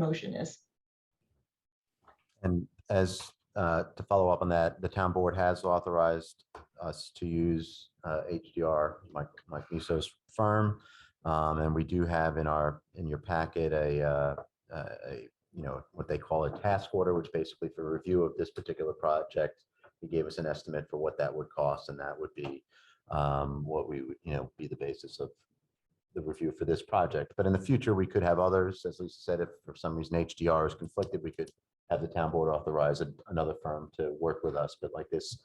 motion is. And as, uh, to follow up on that, the town board has authorized us to use uh, HDR, Mike, Mike Muso's firm. Um, And we do have in our, in your packet, a, uh, a, a, you know, what they call a task order, which basically for review of this particular project, he gave us an estimate for what that would cost, and that would be um, what we, would you know, be the basis of the review for this project. But in the future, we could have others, as Lisa said, if for some reason HDR is conflicted, we could have the town board authorize an- another firm to work with us, but like this,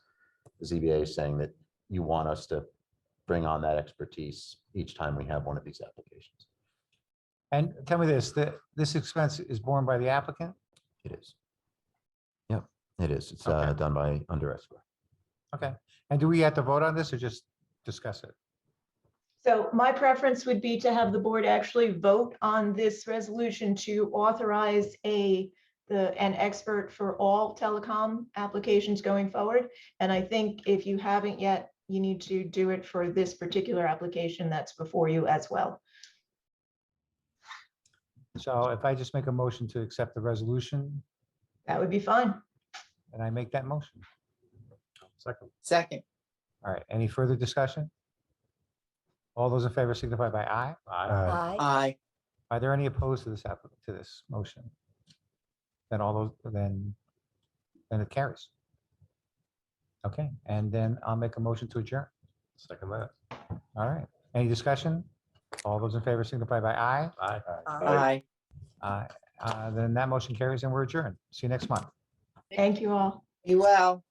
the ZBA is saying that you want us to bring on that expertise each time we have one of these applications. And tell me this, that this expense is borne by the applicant? It is. Yep, it is. It's Okay. uh, done by under escrow. Okay. And do we have to vote on this or just discuss it? So my preference would be to have the board actually vote on this resolution to authorize a, the, an expert for all telecom applications going forward. And I think if you haven't yet, you need to do it for this particular application that's before you as well. So if I just make a motion to accept the resolution That would be fine. and I make that motion. Second. Second, All right. Any further discussion? All those in favor signify by aye. Aye. Aye. aye, Are there any opposed to this app, to this motion? Then all those, then, then it carries. Okay, and then I'll make a motion to adjourn. Second that. All right, any discussion? All those in favor signify by aye. Aye. Aye. aye. Uh, uh, Then that motion carries and we're adjourned. See you next month. Thank you all. Be well.